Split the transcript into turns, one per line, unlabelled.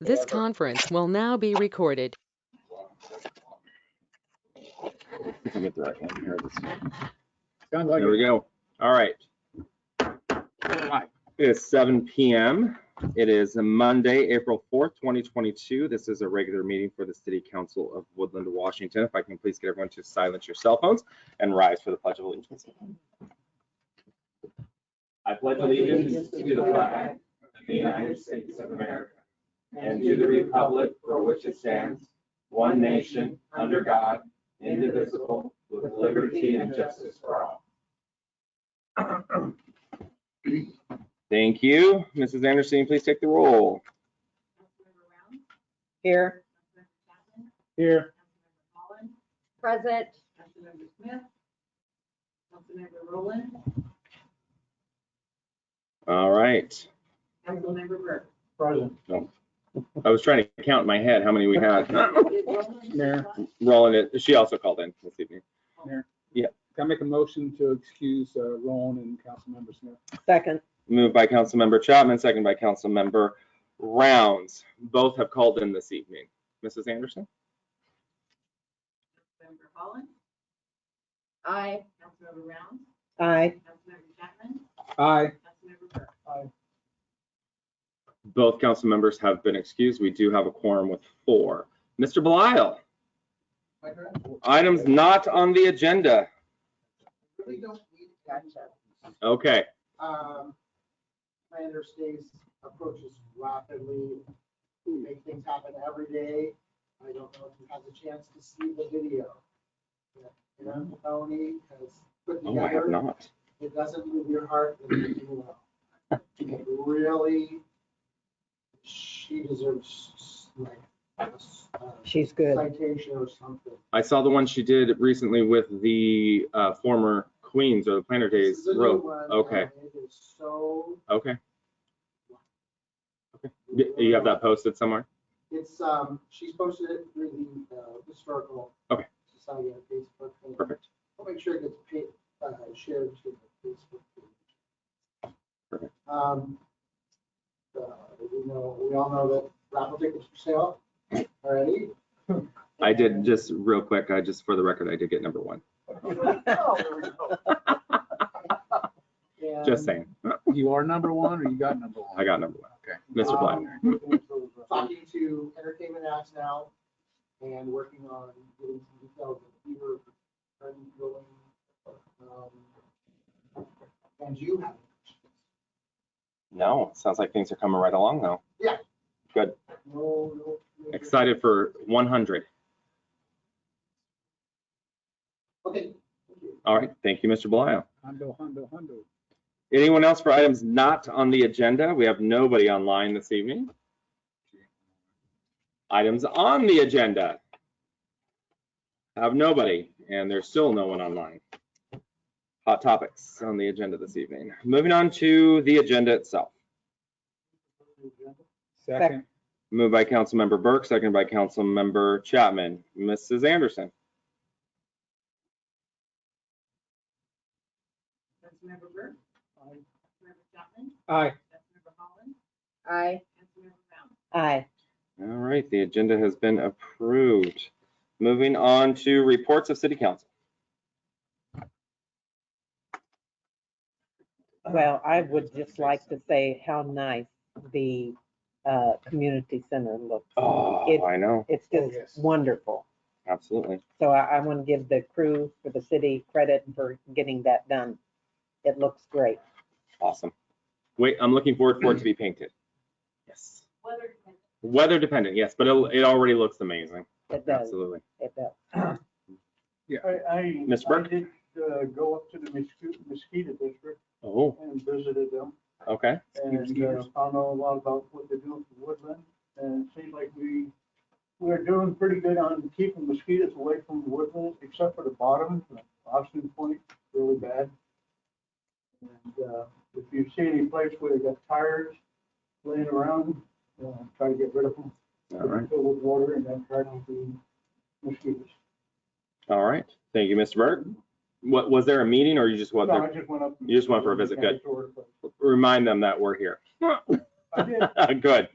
This conference will now be recorded.
If we get the right one here, let's-
Sounds like
There we go. All right.
it.
It is seven PM. It is Monday, April fourth, twenty twenty-two. This is a regular meeting for the City Council of Woodland, Washington. If I can please get everyone to silence your cell phones and rise for the Pledge of Allegiance. I pledge
allegiance to the flag
of
the United States of America,
and to the republic for which it stands,
one nation, under God, indivisible,
with
liberty and justice for
all. Thank you. Mrs. Anderson, please take the roll.
Here.
Here,
Present.
Councilmember Smith. Councilmember Rowland.
All right.
Councilmember Burke.
present.
I was trying to count in my head how many we had.
Did Rowland-
Mayor.
Roland, she also called in this evening.
Can I make a motion to excuse uh, Roan and Councilmember Smith?
Second.
Moved by Councilmember Chapman, second by Councilmember Rounds. Both have called in this evening. Mrs. Anderson?
Councilmember Holland.
Aye.
Councilmember Rounds.
Aye.
Councilmember Chapman.
Aye.
Councilmember Burke.
Both council members have been excused. We do have a quorum with four. Mr. Belial, items not on the agenda.
really don't need gotcha.
Okay,
Um, Planner stays, approaches rapidly, we make things happen every day. I don't know if you had the chance to see the video. You know, Tony has put
no, Oh, I have
together,
not.
it doesn't move your heart, it moves you well. It Really, she deserves like a s- a
She's good.
citation or something.
I saw the one she did recently with the uh, former Queens or the Planter Days
This is a new
rope.
one,
Okay.
and It is so.
Okay, Y- you have that posted somewhere?
It's, um, she's posted it through the, uh, historical.
Okay.
Society on Facebook. and
Perfect.
I'll make sure it gets pa- uh, shared to the Facebook page.
Perfect.
Um, uh, we know, we all know that raffle tickets for sale already.
I did just real quick, I just, for the record, I did get number one.
Oh, there we go. And,
Just saying,
You are number one or you got number one?
I got number one.
Okay.
Mr. Black.
um, Talking to Entertainment Acts now and working on getting some details of your ongoing, um, and you have.
No, sounds like things are coming right along though.
No, no. no.
Excited for 100.
Okay.
All right, thank you, Mr. Belial.
Hundo, hundo, hundo.
Anyone else for items not on the agenda? We have nobody online this evening. Items on the agenda. Have nobody, and there's still no one online. Hot topics on the agenda this evening. Moving on to the agenda itself.
Second.
Moved by Councilmember Burke, seconded by Councilmember Chapman. Mrs. Anderson?
Councilmember Burke. Councilmember Chapman.
Aye.
Councilmember Holland.
Aye.
Councilmember Rounds.
Aye.
All right, the agenda has been approved. Moving on to reports of city council.
Uh,
Well, I would just like to say how nice the uh, community center looks.
Oh, I know,
It's
Oh,
just
yes.
wonderful.
absolutely.
So I, I want to give the crew for the city credit for getting that done. It looks great.
Awesome. Wait, I'm looking forward for it to be painted. Yes.
Weather dependent.
Weather dependent, yes, but it, it already looks amazing.
It does.
Absolutely.
It does.
I, I.
Ms. Burke?
I did uh, go up to the Mesquite Mosquito District
Oh,
and visited them
okay.
and uh, found out a lot about what they're doing for woodland. And it seemed like we, we're doing pretty good on keeping mosquitoes away from woodland, except for the bottom, Austin Point, really bad. And uh, if you see any place where they got tires laying around, uh, try to get rid of them.
All right,
Fill with water and then try to be mosquitoes.
all right. Thank you, Mr. Burke. What, was there a meeting or you just went
No, I
there?
just went up. and-
You just went for a visit, good.
Kind of toured, but
Remind them that we're here.
I did.
Good.